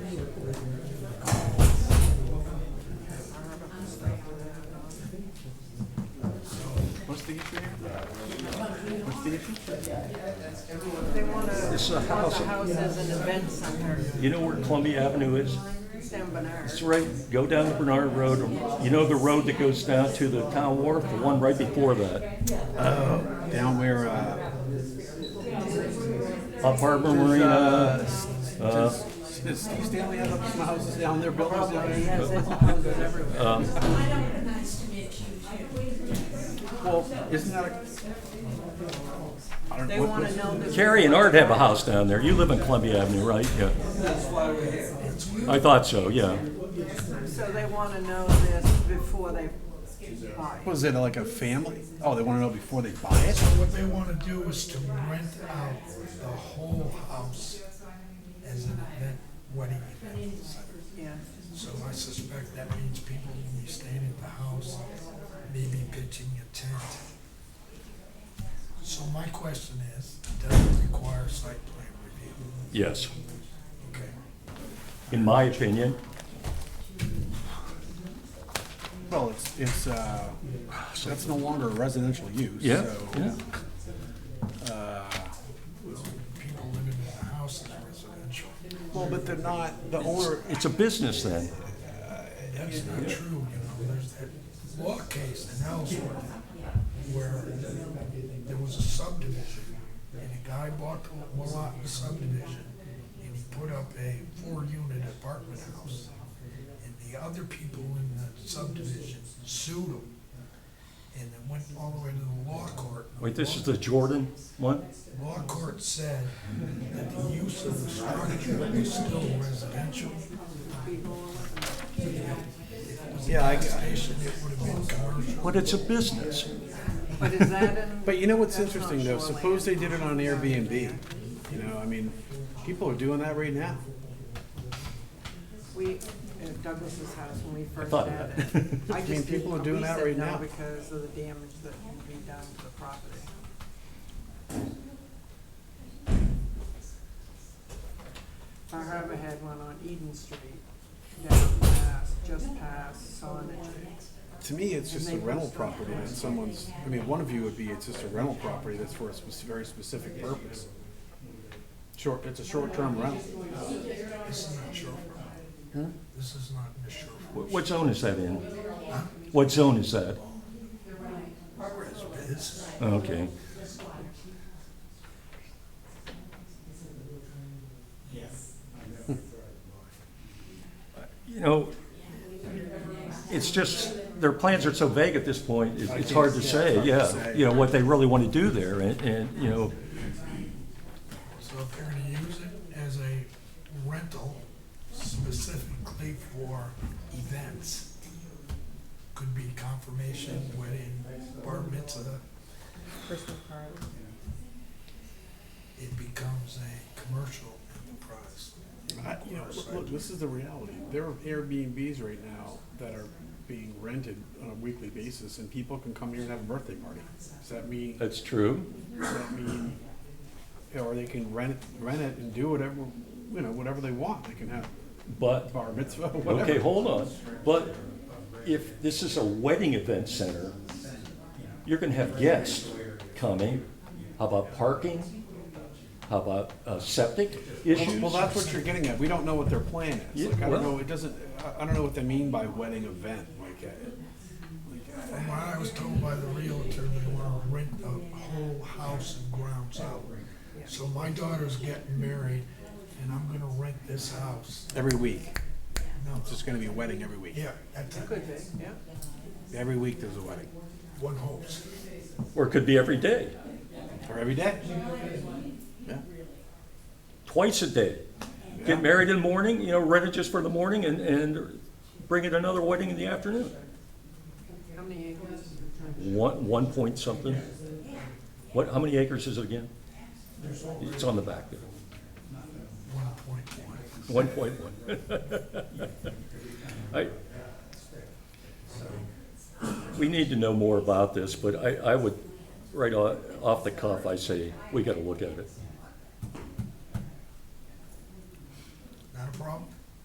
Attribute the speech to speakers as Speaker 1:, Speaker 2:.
Speaker 1: They want to,
Speaker 2: It's a house.
Speaker 1: the house as an event center,
Speaker 2: You know where Columbia Avenue is?
Speaker 1: San Bernard.
Speaker 2: It's right, go down the Bernard Road, you know the road that goes down to the town wharf, the one right before that?
Speaker 3: Down where, uh,
Speaker 2: Up Harbor
Speaker 3: uh,
Speaker 2: Marina, uh,
Speaker 3: does does Steve Stanley have some houses down there, buildings down
Speaker 1: He
Speaker 3: there?
Speaker 1: has his houses everywhere.
Speaker 3: Well, isn't that a? I don't
Speaker 1: They
Speaker 3: know.
Speaker 1: want to
Speaker 3: what-
Speaker 1: know this.
Speaker 2: Carrie and Art have a house down there. You live in Columbia Avenue, right? Yeah. I thought so, yeah.
Speaker 1: So they want to know this before they buy.
Speaker 3: what Was it like a family? Oh, they want to know before they buy it?
Speaker 4: What they want to do is to rent out the whole house as an event, wedding event.
Speaker 1: Yeah,
Speaker 4: So I suspect that means people will be staying at the house, maybe pitching a tent. So my question is, does it require site plan review?
Speaker 2: Yes,
Speaker 4: Okay.
Speaker 2: in my opinion.
Speaker 3: Well, it's, it's, uh, that's no longer a residential use,
Speaker 2: Yeah,
Speaker 3: so.
Speaker 2: yeah.
Speaker 3: Uh,
Speaker 4: People living in the house is residential.
Speaker 3: Well, but they're not, the owner,
Speaker 2: It's a business then.
Speaker 4: That's not true, you know, there's that law case in Ellsworth where there was a subdivision, and a guy bought the lot in the subdivision, and he put up a four-unit apartment house. And the other people in the subdivision sued him, and it went all the way to the law court.
Speaker 2: Wait, this is the Jordan one?
Speaker 4: Law court said that the use of the structure was still residential,
Speaker 3: yeah, I,
Speaker 4: and it would have been commercial.
Speaker 2: But it's a business.
Speaker 1: but is that in?
Speaker 3: but you know what's
Speaker 1: that's not
Speaker 3: interesting though,
Speaker 1: shoreline.
Speaker 3: suppose they did it on Airbnb, you know, I mean, people are doing that right now.
Speaker 1: We, at Douglas's house, when we first
Speaker 2: thought
Speaker 1: had
Speaker 2: of
Speaker 1: it. I
Speaker 3: mean,
Speaker 1: just
Speaker 3: people are
Speaker 1: didn't-
Speaker 3: doing
Speaker 1: we
Speaker 3: that
Speaker 1: said
Speaker 3: right
Speaker 1: no
Speaker 3: now.
Speaker 1: Because of the damage that can be done to the property. Bar Harbor had one on Eden Street, down past, just past Sonnet.
Speaker 3: To me, it's just a rental property that someone's, I mean, one of you would be, it's just a rental property that's for a spec- very specific purpose. Short, it's a short-term rental.
Speaker 4: This is not Sherwood. This is not in the Sherwood.
Speaker 2: Wh- What zone is that in? What zone is that?
Speaker 4: This is
Speaker 2: Okay. You know, it's just, their plans are so vague at this point, it- it's hard to say, yeah, you know, what they really want to do there, and, and, you know,
Speaker 4: So if they're gonna use it as a rental specifically for events, could be confirmation, wedding, bar mitzvah,
Speaker 1: Crystal Park.
Speaker 4: it becomes a commercial enterprise.
Speaker 3: I- You know, look- look, this is the reality. There are Airbnbs right now that are being rented on a weekly basis, and people can come here and have a birthday party. Does that mean, does
Speaker 2: that's true.
Speaker 3: that mean, or they can rent, rent it and do whatever, you know, whatever they want. They can have
Speaker 2: But
Speaker 3: bar mitzvah,
Speaker 2: Okay,
Speaker 3: whatever.
Speaker 2: hold on. But if this is a wedding event center, you're gonna have guests coming. How about parking? How about uh, septic
Speaker 3: Well,
Speaker 2: issues?
Speaker 3: well, that's what you're getting at. We don't know what their plan is.
Speaker 2: Yeah,
Speaker 3: Like, I
Speaker 2: well-
Speaker 3: don't know, it doesn't, I- I don't know what they mean by wedding event, like, uh,
Speaker 4: From what I was told by the realtor, they wanna rent the whole house and grounds out. So my daughter's getting married, and I'm gonna rent this house.
Speaker 3: every week.
Speaker 4: No,
Speaker 3: It's just gonna be a wedding every week.
Speaker 4: yeah, that's it.
Speaker 1: Could be, yeah.
Speaker 3: Every week there's a wedding,
Speaker 4: One hopes.
Speaker 2: Or it could be every day,
Speaker 3: or every day. Yeah.
Speaker 2: twice a day.
Speaker 3: Yeah.
Speaker 2: Get married in the morning, you know, rent it just for the morning and, and bring it another wedding in the afternoon.
Speaker 1: How many acres?
Speaker 2: One, one point something. What, how many acres is it again? It's on the back there,
Speaker 4: One point one.
Speaker 2: one point one. I, we need to know more about this, but I, I would, right o- off the cuff, I say, we gotta look at it.
Speaker 4: Not a problem?